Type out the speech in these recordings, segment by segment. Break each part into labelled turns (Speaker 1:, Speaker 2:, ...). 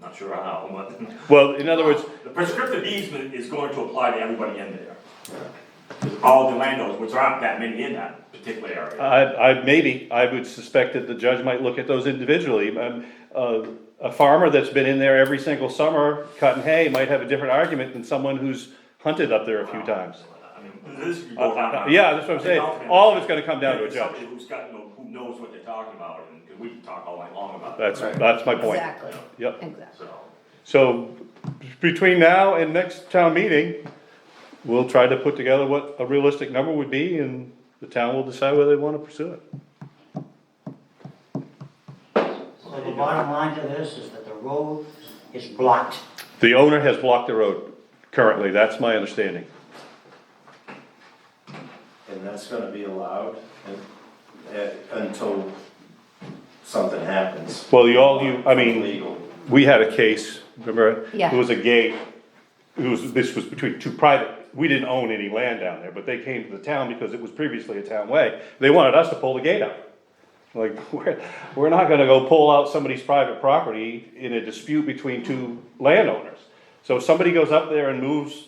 Speaker 1: Not sure how, but.
Speaker 2: Well, in other words,
Speaker 1: The prescriptive easement is going to apply to everybody in there. All the landowners, which aren't that many in that particular area.
Speaker 2: I, I, maybe, I would suspect that the judge might look at those individually. Um, uh, A farmer that's been in there every single summer cutting hay might have a different argument than someone who's hunted up there a few times.
Speaker 1: I mean, this could go
Speaker 2: Uh,
Speaker 1: down.
Speaker 2: yeah, that's what I'm saying. All of it's gonna come down to a judge.
Speaker 1: Somebody who's got, you know, who knows what they're talking about, and, 'cause we can talk all night long about it.
Speaker 2: That's, that's my point.
Speaker 3: Exactly,
Speaker 2: Yep.
Speaker 3: exactly.
Speaker 1: So,
Speaker 2: So between now and next town meeting, we'll try to put together what a realistic number would be and the town will decide whether they wanna pursue it.
Speaker 4: So the bottom line to this is that the road is blocked.
Speaker 2: The owner has blocked the road currently, that's my understanding.
Speaker 5: And that's gonna be allowed and, uh, until something happens.
Speaker 2: Well, you all, you, I mean,
Speaker 5: Legal.
Speaker 2: we had a case, remember?
Speaker 3: Yeah.
Speaker 2: It was a gate, it was, this was between two private, we didn't own any land down there, but they came to the town because it was previously a town way. They wanted us to pull the gate out. Like, we're, we're not gonna go pull out somebody's private property in a dispute between two landowners. So if somebody goes up there and moves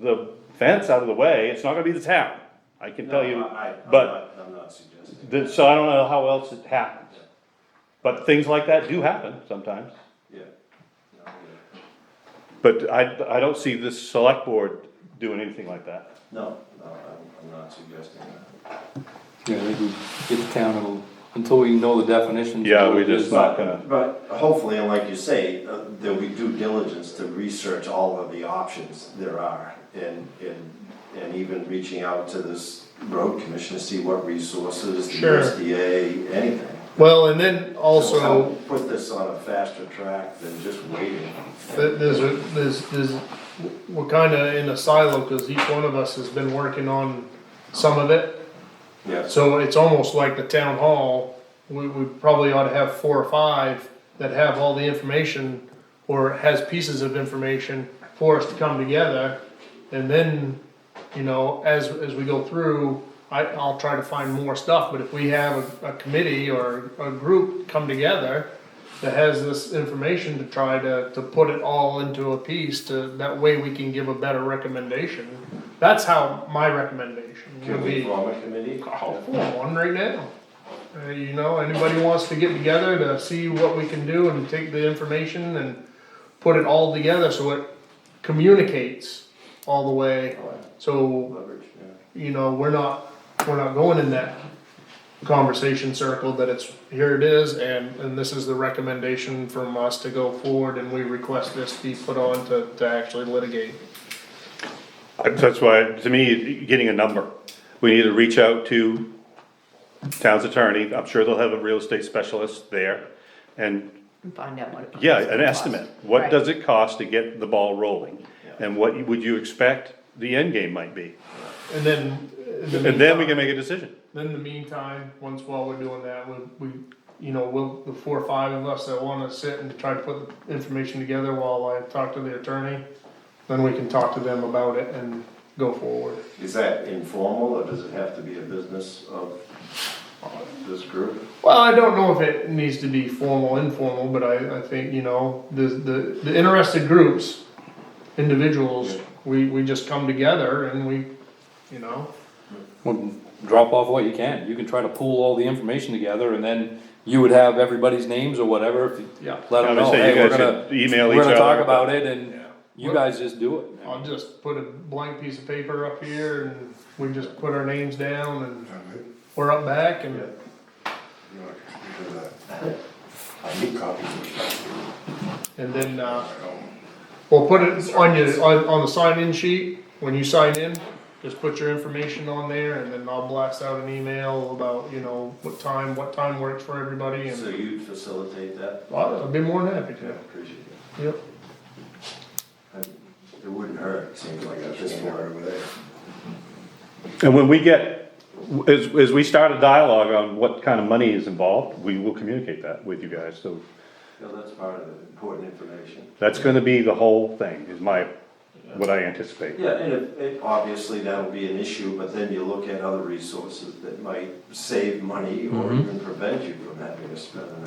Speaker 2: the fence out of the way, it's not gonna be the town, I can tell you.
Speaker 5: No, I- I'm
Speaker 2: but-
Speaker 5: not- I'm not suggesting.
Speaker 2: Then, so I don't know how else it happens. But things like that do happen sometimes.
Speaker 5: Yeah. No, yeah.
Speaker 2: But I, I don't see this select board doing anything like that.
Speaker 5: No, no, I'm, I'm not suggesting that.
Speaker 6: Yeah, they can get the town, it'll- until we know the definition.
Speaker 2: Yeah, we just not gonna,
Speaker 5: But hopefully, and like you say, uh, there'll be due diligence to research all of the options there are. And, and, and even reaching out to this road commission to see what resources, the
Speaker 7: Sure.
Speaker 5: USDA, anything.
Speaker 7: Well, and then
Speaker 5: So
Speaker 7: also,
Speaker 5: help Put this on a faster track than just waiting.
Speaker 7: th- there's, a- there's, there's, we're kinda in a silo, cause each one of us has been working on some of it.
Speaker 5: Yes.
Speaker 7: So it's almost like the town hall, we, we probably ought to have four or five that have all the information or has pieces of information for us to come together. And then, you know, as, as we go through, I, I'll try to find more stuff, but if we have a, a committee or a group come together that has this information to try to, to put it all into a piece to, that way we can give a better recommendation. That's how my recommendation
Speaker 5: Can
Speaker 7: would
Speaker 5: we
Speaker 7: be.
Speaker 5: form a committee?
Speaker 7: I'll form Oh, one right now. Uh, you know, anybody wants to get together to see what we can do and take the information and put it all together so it communicates all the way. So,
Speaker 5: Leverage, yeah.
Speaker 7: you know, we're not, we're not going in that conversation circle that it's, here it is, and, and this is the recommendation from us to go forward and we request this be put on to, to actually litigate.
Speaker 2: that's why, to me, getting a number. We need to reach out to town's attorney, I'm sure they'll have a real estate specialist there. And,
Speaker 3: And find out what it.
Speaker 2: yeah,
Speaker 3: costs.
Speaker 2: an estimate, what
Speaker 3: Right.
Speaker 2: does it cost to get the ball rolling? And what would you expect the end game might be?
Speaker 7: And then. in the
Speaker 2: And then we
Speaker 7: meantime-
Speaker 2: can make a decision.
Speaker 7: Then in the meantime, once while we're doing that, we, we, you know, we'll, the four or five of us that wanna sit and try to put the information together while I talk to the attorney, then we can talk to them about it and go forward.
Speaker 5: Is that informal, or does it have to be a business of uh, this group?
Speaker 7: Well, I don't know if it needs to be formal, informal, but I, I think, you know, the, the, the interested groups, individuals, we, we just come together and we, you know,
Speaker 6: Well, Drop off what you can, you can try to pool all the information together, and then you would have everybody's names or whatever, if you,
Speaker 7: yeah.
Speaker 6: let them
Speaker 2: I would
Speaker 6: know,
Speaker 2: say you
Speaker 6: hey, we're
Speaker 2: guys
Speaker 6: gonna.
Speaker 2: should email each
Speaker 6: We're gonna talk
Speaker 2: other.
Speaker 6: about it, and
Speaker 7: Yeah.
Speaker 6: you guys just do it.
Speaker 7: I'll just put a blank piece of paper up here and we just put our names down and we're up back and.
Speaker 5: I need copies.
Speaker 7: And then, uh, we'll put it on your, on, on the sign-in sheet, when you sign in, just put your information on there, and then I'll blast out an email about, you know, what time, what time works for everybody,
Speaker 5: So
Speaker 7: and
Speaker 5: you'd facilitate that?
Speaker 7: I'd be more than happy
Speaker 5: Yeah,
Speaker 7: to.
Speaker 5: appreciate it.
Speaker 7: Yep.
Speaker 5: It wouldn't hurt, seems like at this point.
Speaker 2: And when we get, as, as we start a dialogue on what kind of money is involved, we will communicate that with you guys, so
Speaker 5: Yeah, that's part of the important information.
Speaker 2: that's gonna be the whole thing, is my, what I anticipate.
Speaker 5: Yeah, and if, it, obviously that'll be an issue, but then you look at other resources that might save money or even prevent you from having to spend an